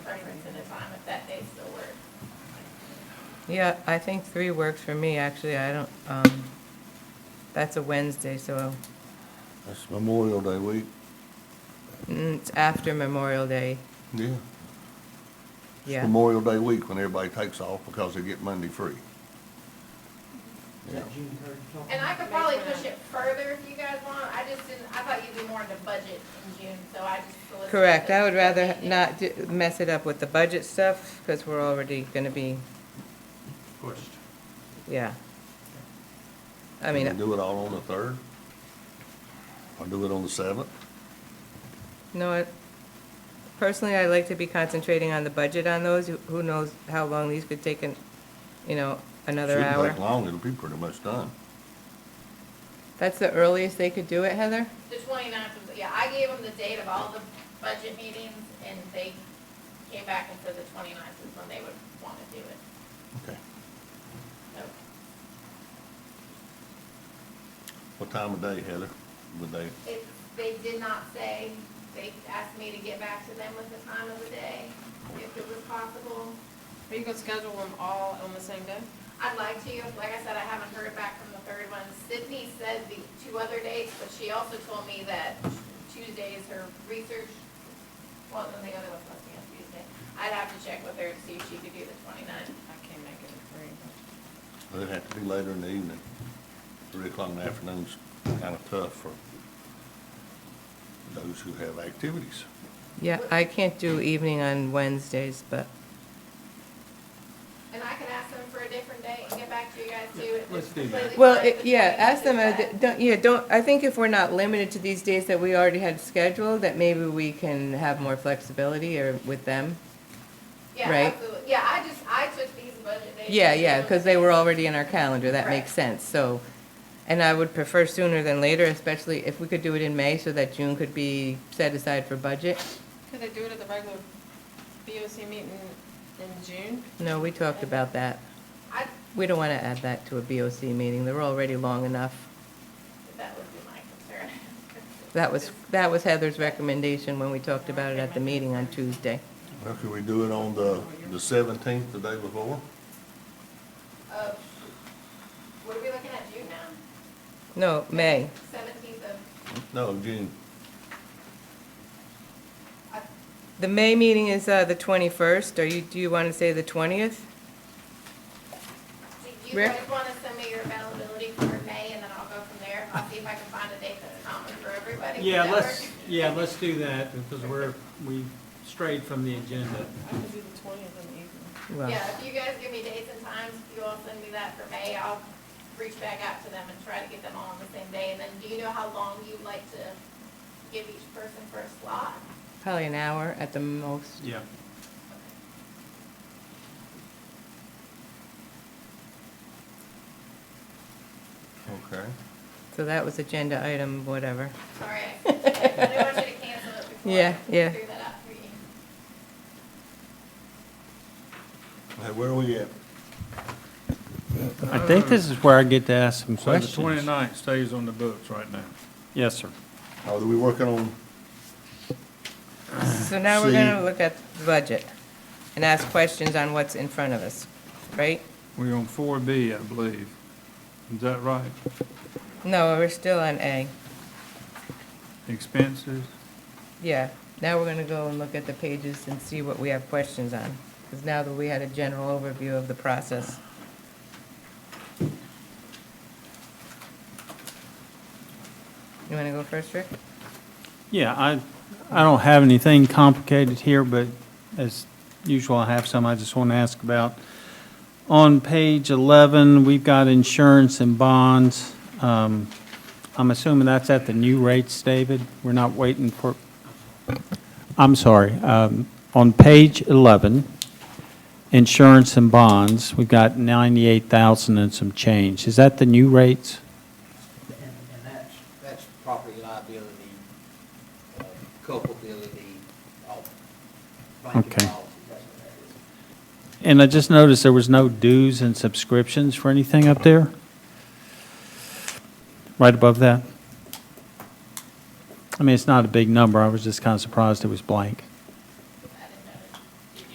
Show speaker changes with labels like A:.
A: Yeah, I think three works for me, actually, I don't, um, that's a Wednesday, so
B: That's Memorial Day week.
A: mm, it's after Memorial Day,
B: Yeah.
A: yeah.
B: Memorial Day week when everybody takes off because they get Monday free.
C: Is that June third you're talking
D: And I
C: about?
D: could probably push it further if you guys want, I just didn't, I thought you'd be more into budget in June, so I just. solicited
A: Correct,
D: the-
A: I would rather
D: the
A: not do- mess it up with the budget stuff, because we're already gonna be,
C: Pushed.
A: yeah. I
B: And
A: mean,
B: Do it all on the third? Or do it on the seventh?
A: no, I- personally, I like to be concentrating on the budget on those, Who- who knows how long these could take, an- you know, another
B: Shouldn't take
A: hour.
B: long, it'll be pretty much done.
A: That's the earliest they could do it, Heather?
D: The 29th was, yeah, I gave them the date of all the budget meetings, and they came back and said the 29th is when they would want to do it,
B: Okay.
D: so.
B: What time of day, Heather, would they?
D: If they did not say, they asked me to get back to them with the time of the day, if it was possible.
E: Are you gonna schedule them all on the same day?
D: I'd like to, like I said, I haven't heard back from the third one. Sydney said the two other dates, but she also told me that Tuesday is her research, well, then the other one's supposed to be on Tuesday. I'd have to check with her to see if she could do the 29th.
E: I can't make it at three.
B: It'd have to be later in the evening. Three o'clock in the afternoon's kind of tough for those who have activities.
A: Yeah, I can't do evening on Wednesdays, but,
D: And I can ask them for a different date and get back to you guys too. It's
C: Let's do that.
D: completely
A: well,
D: fine
A: it-
D: with
A: yeah,
D: me,
A: ask them,
D: it's
A: uh,
D: just
A: don't, yeah, don't, I think if we're not limited to these days that we already had scheduled, that maybe we can have more flexibility or with them.
D: that- yeah,
A: right.
D: absolutely. Yeah, I just, I took these budget dates.
A: Yeah,
D: and
A: yeah,
D: threw
A: because
D: them
A: they were already in our calendar, that makes sense, so. And I would prefer sooner than later, especially if we could do it in May so that June could be set aside for budget.
E: Could they do it at the regular BOC meeting in June?
A: No, we talked about that.
D: I,
A: We don't want to add that to a BOC meeting, they're already long enough.
D: that would be my concern.
A: That was, that was Heather's recommendation when we talked about it at the meeting on Tuesday.
B: Well, could we do it on the, the seventeenth, the day before?
D: Uh, What are we looking at, June now?
A: No, May.
D: Seventeenth of,
B: No, June.
D: I-
A: The May meeting is uh, the 21st. Are you, do you want to say the 20th?
D: do you
A: Rick?
D: guys want to send me your availability for May, and then I'll go from there? I'll see if I can find a date that's common for everybody. Does
C: Yeah,
D: that
C: let's,
D: work?
C: yeah, let's do that, because we're, we strayed from the agenda.
E: I could do the twentieth in the evening.
A: Well,
D: Yeah, if you guys give me dates and times, if you all send me that for May, I'll reach back out to them and try to get them all on the same day. And then do you know how long you'd like to give each person for a slot?
A: probably an hour at the most.
C: Yeah.
B: Okay.
A: So that was agenda item, whatever.
D: Sorry, I I didn't want you to cancel it before.
A: Yeah, yeah.
D: Figure that out for you.
B: Hey, where are we at?
F: I think this is where I get to ask some
G: So the
F: questions.
G: 29th stays on the books right now.
F: Yes, sir.
B: Are we working on,
A: So now we're going to
B: See-
A: look at the budget and ask questions on what's in front of us, right?
G: We're on 4B, I believe. Is that right?
A: No, we're still on A.
G: Expenses?
A: Yeah, now we're gonna go and look at the pages and see what we have questions on, because now that we had a general overview of the process. You wanna go first, Rick?
F: Yeah, I, I don't have anything complicated here, but as usual, I have some I just want to ask about. On page 11, we've got insurance and bonds. Um, I'm assuming that's at the new rates, David? We're not waiting for, I'm sorry. um, On page 11, insurance and bonds, we've got 98,000 and some change. Is that the new rates?
H: And, and that's, that's property liability, uh, culpability, all, blanket
F: Okay.
H: policy, that's what that is.
F: And I just noticed there was no dues and subscriptions for anything up there? Right above that? I mean, it's not a big number, I was just kind of surprised it was blank.